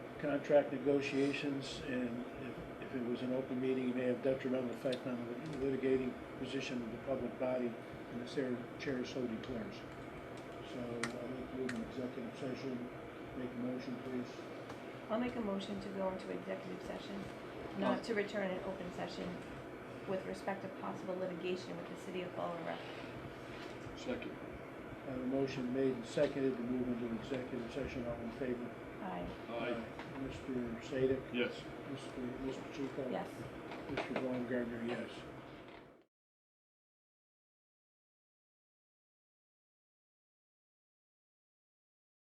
contract negotiations, and if, if it was an open meeting, it may have detrimental effect on the litigating position of the public body, and the chair, chair so declares. So I would move an executive session, make a motion, please. I'll make a motion to go into executive session, not to return an open session with respect to possible litigation with the city of Fall River. Second. I have a motion made and seconded to move into executive session, all in favor? Aye, Aye. Mr. Sadik, Yes. Mr. Mr. Chico? yes. Mr. Baumgartner, yes.